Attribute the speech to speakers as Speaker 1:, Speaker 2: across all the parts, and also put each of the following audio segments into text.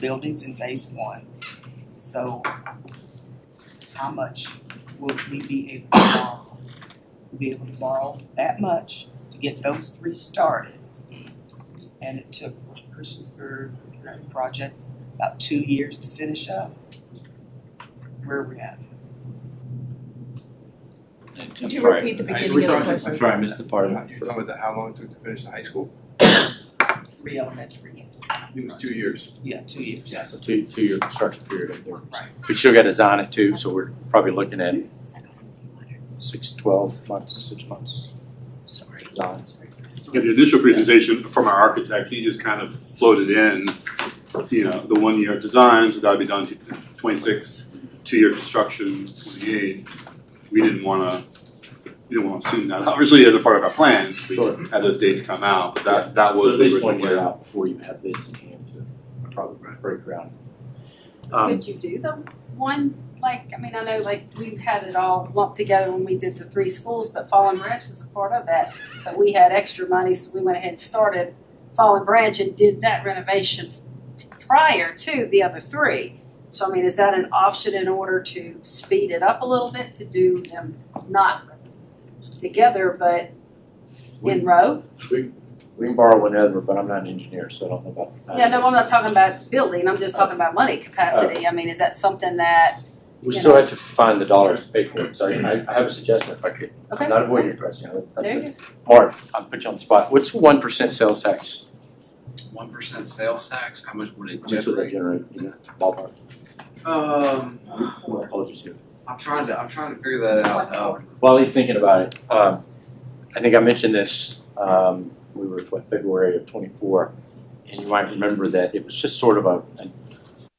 Speaker 1: buildings in phase one. So how much will we be able to borrow? We'll be able to borrow that much to get those three started. And it took Christiansburg Grant project about two years to finish up. Where are we at?
Speaker 2: Could you
Speaker 3: Sorry.
Speaker 2: repeat the
Speaker 3: I-
Speaker 2: beginning
Speaker 3: we're
Speaker 2: of the
Speaker 3: talking-
Speaker 2: question?
Speaker 3: I'm sorry, I missed the part
Speaker 4: You're
Speaker 3: of it.
Speaker 4: talking about the, how long it took to finish the high school?
Speaker 1: Three elementary,
Speaker 4: It was two years.
Speaker 1: yeah, two years.
Speaker 3: Yeah, so two, two-year construction period of work.
Speaker 1: Right.
Speaker 3: We still got to design it too, so we're probably looking at six, twelve months, six months. Sorry. Designs.
Speaker 5: Yeah, the initial presentation from our architect, he just kind of floated in, you know, the one-year design, so that'd be done to twenty-six, two-year construction, twenty-eight. We didn't wanna, we didn't wanna assume that, obviously as a part of our plan, we
Speaker 3: Sure.
Speaker 5: had those dates come out, but that, that
Speaker 3: So
Speaker 5: was
Speaker 3: at
Speaker 5: the
Speaker 3: least
Speaker 5: original
Speaker 3: one
Speaker 5: plan.
Speaker 3: year out before you have bids in hand to probably break ground. Um,
Speaker 6: Could you do the one, like, I mean, I know like we had it all lumped together when we did the three schools, but Fallen Branch was a part of that. But we had extra money, so we went ahead and started Fallen Branch and did that renovation prior to the other three. So I mean, is that an option in order to speed it up a little bit, to do them not together, but in row?
Speaker 3: We can borrow whenever, but I'm not an engineer, so I don't know about the time.
Speaker 6: Yeah, no, I'm not talking about building, I'm just talking about money
Speaker 3: Uh,
Speaker 6: capacity. I mean, is that something that,
Speaker 3: We still have to find the dollars to pay for it, so I, I have a suggestion if I could. I'm
Speaker 6: Okay.
Speaker 3: Not avoid your question. I would- I
Speaker 6: there you
Speaker 3: would-
Speaker 6: go.
Speaker 3: Mark, I'll put you on the spot. What's one percent sales tax?
Speaker 7: one percent sales tax, how much would it
Speaker 3: How much would that
Speaker 7: generate?
Speaker 3: generate, you know, ballpark?
Speaker 7: Um,
Speaker 3: My apologies here.
Speaker 7: I'm trying to, I'm trying to figure that out,
Speaker 3: uh,
Speaker 7: um,
Speaker 3: While he's thinking about it, um, I think I mentioned this, um, we were, what, February of twenty-four. And you might remember that it was just sort of a, a-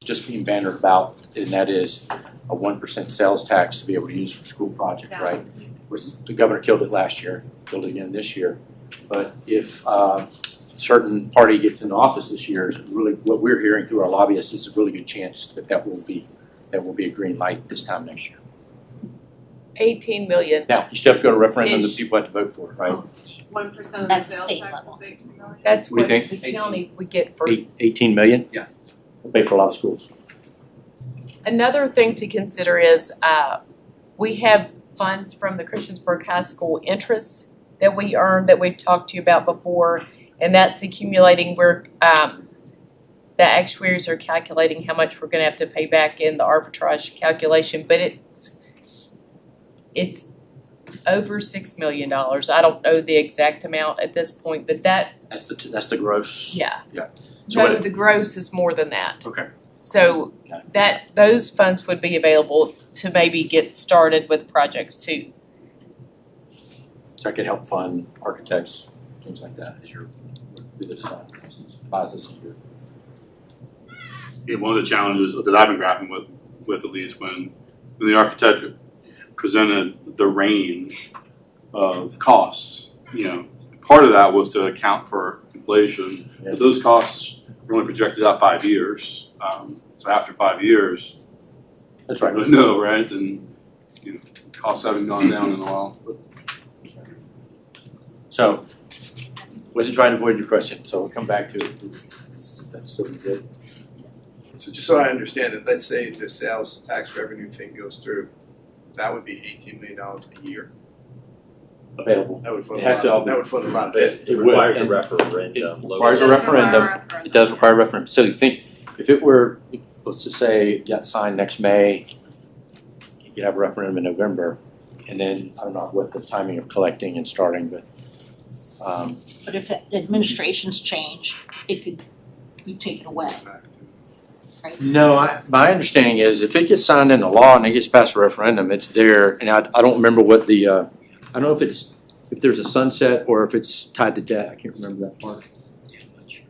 Speaker 3: just being bannered about, and that is a one percent sales tax to be able to use for school projects,
Speaker 6: Yeah.
Speaker 3: right? Was, the governor killed it last year, killed it again this year. But if, uh, a certain party gets into office this year, it's really, what we're hearing through our lobbyists, is a really good chance that that will be, that will be a green light this time next year.
Speaker 2: Eighteen million,
Speaker 3: Now, you still have to go to referendum, the
Speaker 2: Ish.
Speaker 3: people have to vote for it, right?
Speaker 8: one percent of the
Speaker 9: That's the
Speaker 8: sales
Speaker 9: state
Speaker 8: tax
Speaker 9: level.
Speaker 8: is eighteen million.
Speaker 2: that's
Speaker 3: What
Speaker 2: what
Speaker 3: do you
Speaker 2: the
Speaker 7: Eighteen.
Speaker 2: county would get for.
Speaker 3: Eight, eighteen million?
Speaker 7: Yeah.
Speaker 3: We'll pay for a lot of schools.
Speaker 2: Another thing to consider is, uh, we have funds from the Christiansburg High School interest that we earn, that we've talked to you about before, and that's accumulating, we're, um, the actuaries are calculating how much we're gonna have to pay back in the arbitrage calculation, but it's, it's over six million dollars, I don't know the exact amount at this point, but that
Speaker 3: That's the, t- that's the gross.
Speaker 2: Yeah.
Speaker 3: Yeah. So
Speaker 2: No,
Speaker 3: what-
Speaker 2: the gross is more than that.
Speaker 3: Okay.
Speaker 2: So
Speaker 3: Okay.
Speaker 2: that, those funds would be available to maybe get started with projects too.
Speaker 3: So I could help fund architects, things like that, as you're, through the design process, process of your-
Speaker 5: Yeah, one of the challenges that I've been grappling with, with at least when, when the architect presented the range of costs, you know, part of that was to account for inflation,
Speaker 3: Yeah.
Speaker 5: but those costs were only projected out five years. Um, so after five years,
Speaker 3: That's
Speaker 5: I
Speaker 3: right.
Speaker 5: don't know, right, and, you know, costs haven't gone down in a while, but
Speaker 3: So, wasn't trying to avoid your question, so we'll come back to it. That's still good.
Speaker 4: So just so I understand it, let's say the sales tax revenue thing goes through, that would be eighteen million dollars a year.
Speaker 3: Available.
Speaker 4: That would fund
Speaker 3: It
Speaker 4: a
Speaker 3: has
Speaker 4: lot,
Speaker 3: to all
Speaker 4: of-
Speaker 3: be-
Speaker 4: that would fund a lot of it.
Speaker 3: It
Speaker 10: requires a
Speaker 3: and
Speaker 10: referendum.
Speaker 3: It requires a referendum. It does require a referendum. So you think, if it were, let's just say, it got signed next May, you could have a referendum in November, and then, I don't know what the timing of collecting and starting, but, um,
Speaker 9: But if the administrations change, it could be taken away.
Speaker 3: no, I, my understanding is if it gets signed into law and it gets past a referendum, it's there, and I, I don't remember what the, uh, I don't know if it's, if there's a sunset or if it's tied to debt, I can't remember that part.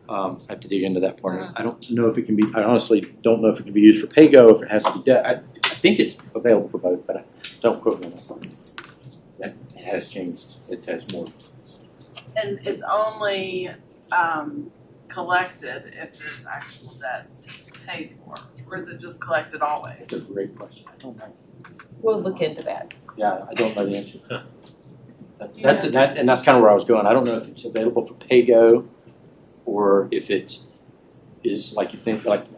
Speaker 3: Um, I have to dig into that part. I don't know if it can be, I honestly don't know if it can be used for pay-go, if it has to be debt. I, I think it's available for both, but I don't quote me on that part. That, it has changed, it has more.
Speaker 8: And it's only um collected if there's actual debt to pay for, or is it just collected always?
Speaker 3: That's a great question. I don't know.
Speaker 2: We'll look into that.
Speaker 3: Yeah, I don't know the answer. That,
Speaker 2: Do you
Speaker 3: that,
Speaker 2: know?
Speaker 3: that- and that's kind of where I was going. I don't know if it's available for pay-go or if it is like you think, like